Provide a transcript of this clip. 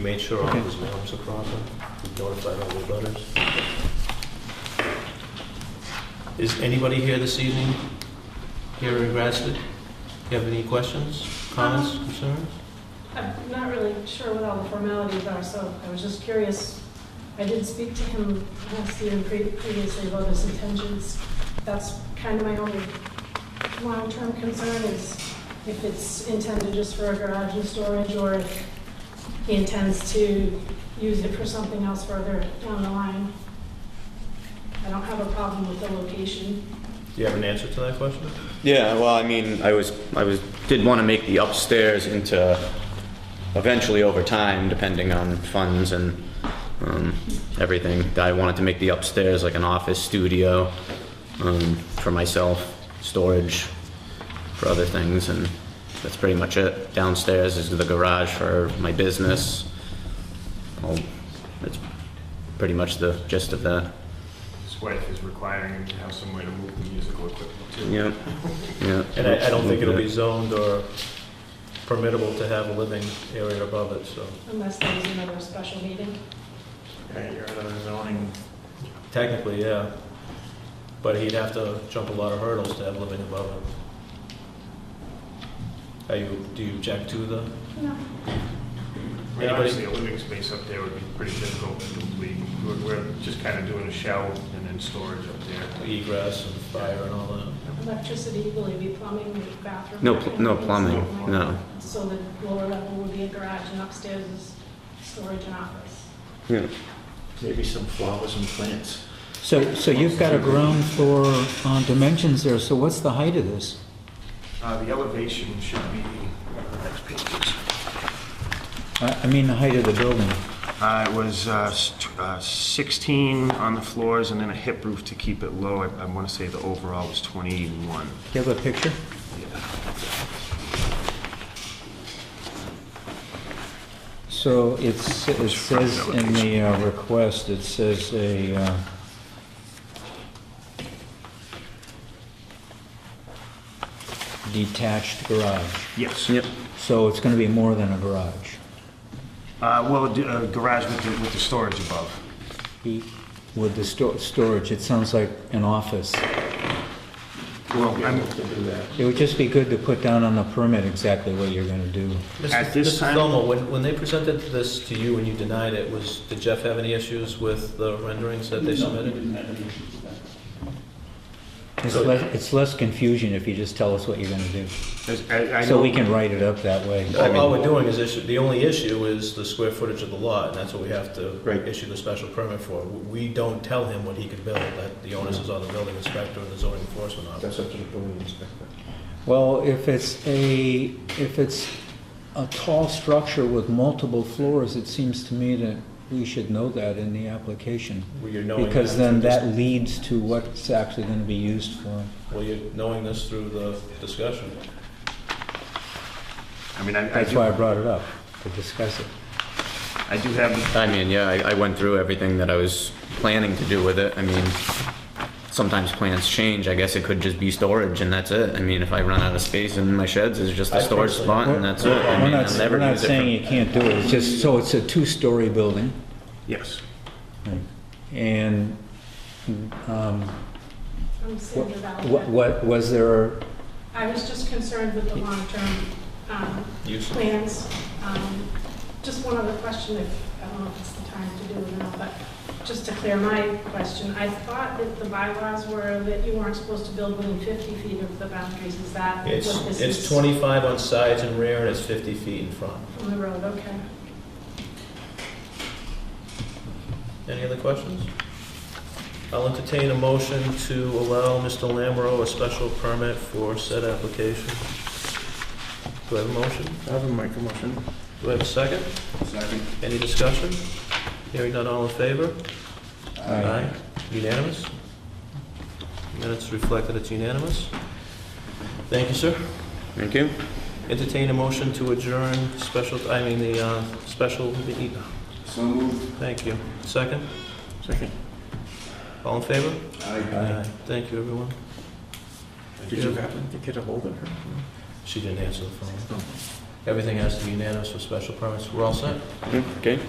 made sure all Okay. his maps are proper, we notified all the butters. Is anybody here this evening, here in Grasset? Do you have any questions, comments, concerns? I'm not really sure what all the formalities are, so I was just curious. I did speak to him last year and pre- previously about his intentions. That's kind of my only long-term concern is if it's intended just for a garage and storage or if he intends to use it for something else further down the line. I don't have a problem with the location. Do you have an answer to that question? Yeah, well, I mean, I was, I was, did want to make the upstairs into, eventually over time, depending on funds and um, everything, I wanted to make the upstairs like an office studio um, for myself, storage for other things, and that's pretty much it. Downstairs is the garage for my business. Well, That's pretty much the gist of that. His wife is requiring him to have somewhere to move the musical equipment to. Yeah, yeah. And I, I don't think it'll be zoned or permittable to have a living area above it, so. Unless there was another special meeting. Yeah, you're out of the zoning. Technically, yeah. But he'd have to jump a lot of hurdles to have living above it. Are you, do you object to the? I mean, obviously, a living space up there would be pretty difficult to complete. We're, we're just kind of doing a shell and then storage up there. egress and fire and all that. Electricity, will it be plumbing, bathroom? No, pl- no plumbing, no. So the lower level would be a garage and upstairs is storage and office. Yeah. Maybe some flowers and plants. So, so you've got a ground floor uh, dimensions there, so what's the height of this? Uh, the elevation should be, uh, next page. I I mean, the height of the building. Uh, it was, uh, s- tw- uh, sixteen on the floors and then a hip roof to keep it low. I, I want to say the overall was twenty-one. Do you have a picture? So it's, it says in the uh, request, it says a, uh, detached garage. Yes. Yep. So it's gonna be more than a garage. Uh, well, d- uh, garage with the, with the storage above. With the sto- storage, it sounds like an office. Well, I'm, It would just be good to put down on the permit exactly what you're gonna do. At this Mr. time- Thomo, when, when they presented this to you and you denied it, was, did Jeff have any issues with the renderings that they submitted? It's less, it's less confusion if you just tell us what you're gonna do. As- I- I So know- we can write it up that way. All Oh, all we're doing is issue, the only issue is the square footage of the lot, and that's what we have to Right. issue the special permit for. We don't tell him what he can build, that the onus is on the building inspector and the zoning enforcement officer. That's up to the building inspector. Well, if it's a, if it's a tall structure with multiple floors, it seems to me that we should know that in the application. Well, you're knowing Because that then through this- that leads to what's actually gonna be used for. Well, you're knowing this through the discussion. I mean, I, I That's do, why I brought it up, to discuss it. I do have the I mean, yeah, I, I went through everything that I was planning to do with it. I mean, sometimes plans change. I guess it could just be storage and that's it. I mean, if I run out of space in my sheds, it's just I a think storage so. spot and that's it. I We're mean, not, I'll we're never not use it saying for- you can't do it, it's just, so it's a two-story building, Yes. and, um, I'm Sandra what, Valiquette. what, was there, I was just concerned with the long-term um, Use. plans. Um, Just one other question, if, I don't know if it's the time to do it now, but just to clear my question, I thought that the bylaws were that you weren't supposed to build within 50 feet of the boundaries, is that what It's, this is? it's 25 on sides and rear, and it's 50 feet in front. From the road, okay. Any other questions? I'll entertain a motion to allow Mr. Lamro a special permit for said application. Do I have a motion? I have a micro motion. Do I have a second? Second. Any discussion? Hearing none, all in favor? Aye. Unanimous? Minutes reflect that it's unanimous. Thank you, sir. Thank you. Entertain a motion to adjourn special, I mean, the uh, special, meeting. So moved. thank you. Second? Second. All in favor? uh, Aye. Thank you, everyone. Did you happen to get a hold of her? Oh. She didn't answer the phone. Everything has to be unanimous for special permits. We're all set? Okay.